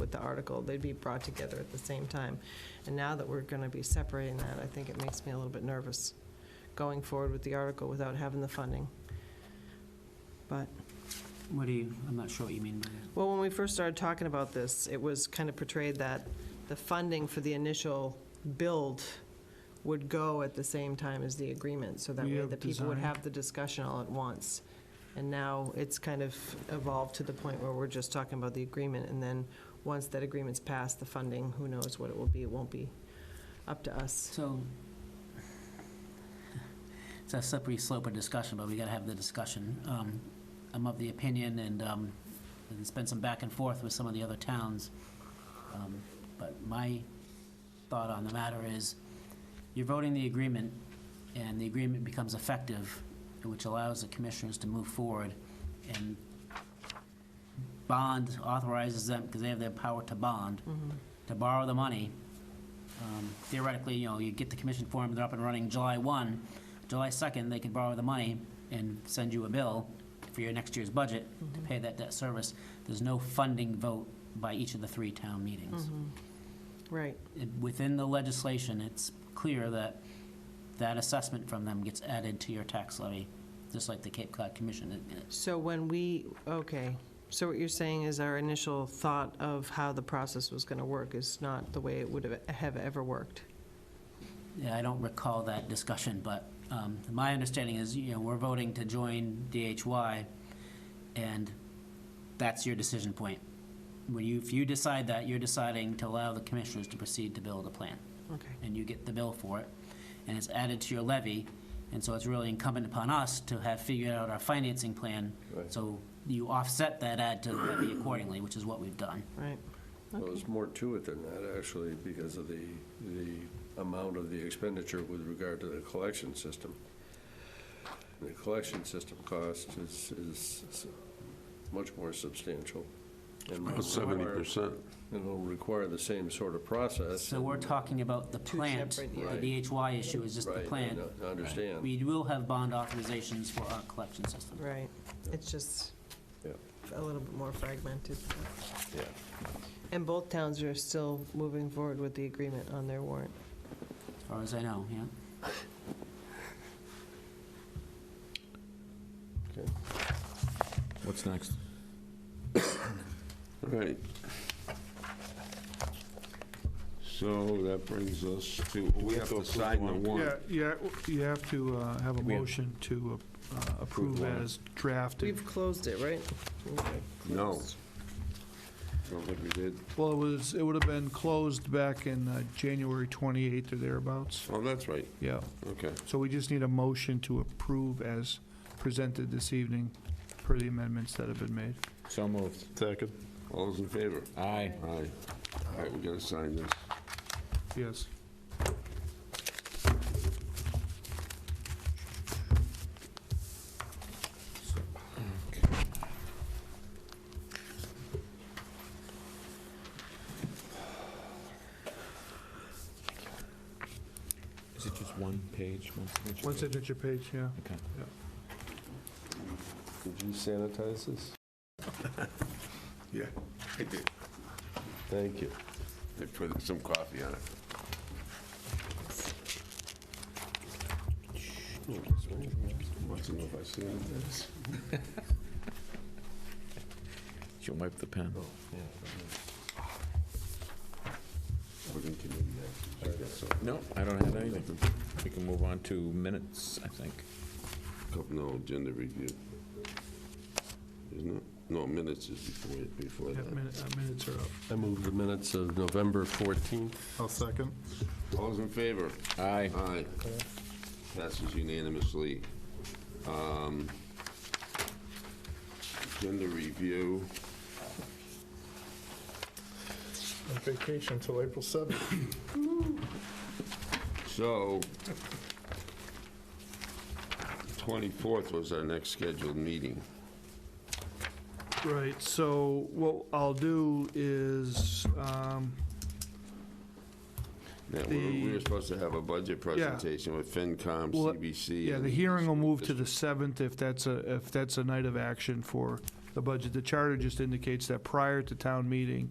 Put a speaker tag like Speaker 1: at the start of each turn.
Speaker 1: with the article, they'd be brought together at the same time. And now that we're going to be separating that, I think it makes me a little bit nervous going forward with the article without having the funding. But
Speaker 2: What do you, I'm not sure what you mean by that.
Speaker 1: Well, when we first started talking about this, it was kind of portrayed that the funding for the initial build would go at the same time as the agreement, so that
Speaker 3: We
Speaker 1: way
Speaker 3: have
Speaker 1: the people would
Speaker 3: design.
Speaker 1: have the discussion all at once. And now it's kind of evolved to the point where we're just talking about the agreement, and then, once that agreement's passed, the funding, who knows what it will be, it won't be up to us.
Speaker 2: So, it's a slippery slope of discussion, but we gotta have the discussion. Um, I'm of the opinion, and um, there's been some back and forth with some of the other towns, um, but my thought on the matter is, you're voting the agreement, and the agreement becomes effective, which allows the commissioners to move forward, and bond authorizes them, because they have their power to bond,
Speaker 1: Mm-hmm,
Speaker 2: to borrow the money. Um, Theoretically, you know, you get the commission form, they're up and running July 1. July 2nd, they can borrow the money and send you a bill for your next year's budget to pay that debt service. There's no funding vote by each of the three town meetings
Speaker 1: mm-hmm. Right,
Speaker 2: it- within the legislation, it's clear that that assessment from them gets added to your tax levy, just like the Cape Cod Commission. It- it-
Speaker 1: so when we, okay, so what you're saying is our initial thought of how the process was gonna work is not the way it would have- have ever worked?
Speaker 2: yeah, I don't recall that discussion, but um, my understanding is, you know, we're voting to join DHY, and that's your decision point. When you, if you decide that, you're deciding to allow the commissioners to proceed to build a plan.
Speaker 1: Okay.
Speaker 2: and you get the bill for it, and it's added to your levy, and so it's really incumbent upon us to have figured out our financing plan,
Speaker 4: Right.
Speaker 2: so you offset that add to the levy accordingly, which is what we've done.
Speaker 1: Right.
Speaker 4: Well, there's more to it than that, actually, because of the, the amount of the expenditure with regard to the collection system. The collection system cost is, is much more substantial. and will
Speaker 3: Seventy
Speaker 4: require-
Speaker 3: percent.
Speaker 4: And will require the same sort of process.
Speaker 2: So we're talking about the
Speaker 1: Two
Speaker 2: plant,
Speaker 1: separate,
Speaker 4: yeah. Right.
Speaker 2: the DHY issue is just the
Speaker 4: Right, I
Speaker 2: plant.
Speaker 4: know- I understand.
Speaker 2: We will have bond authorizations for our collection system.
Speaker 1: Right, it's just
Speaker 4: Yeah,
Speaker 1: a little bit more fragmented.
Speaker 4: yeah.
Speaker 1: And both towns are still moving forward with the agreement on their warrant.
Speaker 2: As far as I know, yeah.
Speaker 4: Okay.
Speaker 3: What's next? All right. So that brings us to, we have to sign the
Speaker 5: Yeah,
Speaker 3: warrant.
Speaker 5: yeah, you have to uh, have a
Speaker 3: We have-
Speaker 5: motion to uh, approve
Speaker 3: warrant.
Speaker 5: as drafted.
Speaker 1: We've closed it, right?
Speaker 3: No. I don't think we did.
Speaker 5: Well, it was, it would have been closed back in uh, January 28th or thereabouts.
Speaker 3: Oh, that's right,
Speaker 5: Yeah,
Speaker 3: okay.
Speaker 5: so we just need a motion to approve as presented this evening per the amendments that have been made.
Speaker 3: So moved. Second. All those in favor? Aye. Aye. All right, we gotta sign this.
Speaker 5: Yes.
Speaker 6: Is it just one page, one signature?
Speaker 5: One signature page, yeah.
Speaker 6: Okay.
Speaker 4: Did you sanitize this?
Speaker 3: Yeah, I did.
Speaker 4: Thank you.
Speaker 3: They put some coffee on it. Want to know if I see it?
Speaker 6: She'll wipe the pen.
Speaker 3: We're gonna continue that. I guess so.
Speaker 6: No, I don't have anything. We can move on to minutes, I think.
Speaker 3: Couple no agenda review. Isn't it? No, minutes is before, before
Speaker 5: Yeah,
Speaker 3: that.
Speaker 5: min- uh, Minutes are up.
Speaker 4: I move the minutes of November 14th.
Speaker 5: I'll second.
Speaker 3: All those in favor?
Speaker 6: Aye.
Speaker 3: Aye. Passes unanimously. Um, Agenda review.
Speaker 5: Vacation until April 7th.
Speaker 3: So, 24th was our next scheduled meeting.
Speaker 5: Right, so what I'll do is, um,
Speaker 3: Now, we were- we
Speaker 5: The-
Speaker 3: were supposed to have a budget presentation with FinCom,
Speaker 5: Well,
Speaker 3: CBC.
Speaker 5: Yeah, the
Speaker 3: and-
Speaker 5: hearing will move to the 7th if that's a, if that's a night of action for the budget. The charter just indicates that prior to town meeting,